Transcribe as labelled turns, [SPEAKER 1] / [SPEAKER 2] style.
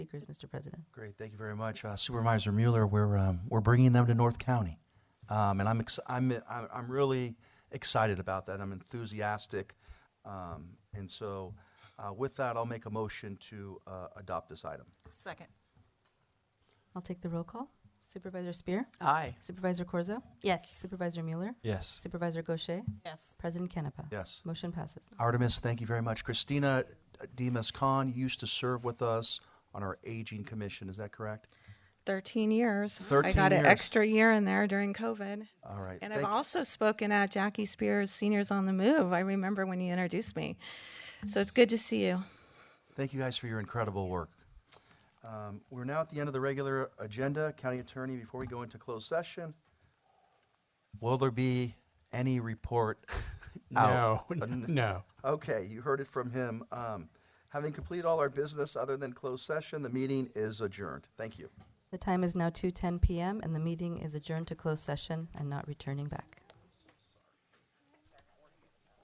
[SPEAKER 1] Speakers, Mr. President.
[SPEAKER 2] Great, thank you very much. Uh, Supervisor Mueller, we're, um, we're bringing them to North County. Um, and I'm, ex- I'm, I'm I'm really excited about that. I'm enthusiastic. Um, and so, uh, with that, I'll make a motion to, uh, adopt this item.
[SPEAKER 3] Second.
[SPEAKER 1] I'll take the roll call. Supervisor Spear,
[SPEAKER 3] Aye.
[SPEAKER 1] Supervisor Corzo,
[SPEAKER 4] Yes.
[SPEAKER 1] Supervisor Mueller,
[SPEAKER 2] Yes.
[SPEAKER 1] Supervisor Gaucher,
[SPEAKER 3] Yes.
[SPEAKER 1] President Canepa.
[SPEAKER 2] Yes.
[SPEAKER 1] Motion passes.
[SPEAKER 2] Artemis, thank you very much. Christina uh, Demas Khan used to serve with us on our Aging Commission, is that correct?
[SPEAKER 5] 13 years.
[SPEAKER 2] 13
[SPEAKER 5] I got
[SPEAKER 2] years.
[SPEAKER 5] an extra year in there during COVID.
[SPEAKER 2] All right.
[SPEAKER 5] And
[SPEAKER 2] thank-
[SPEAKER 5] I've also spoken at Jackie Spears Seniors on the Move. I remember when you introduced me. So it's good to see you.
[SPEAKER 2] Thank you guys for your incredible work. Um, We're now at the end of the regular agenda. County Attorney, before we go into closed session, will there be any report? out?
[SPEAKER 6] No, no.
[SPEAKER 2] Okay, you heard it from him. Um, Having completed all our business other than closed session, the meeting is adjourned. Thank you.
[SPEAKER 1] The time is now 2:10 PM and the meeting is adjourned to closed session and not returning back.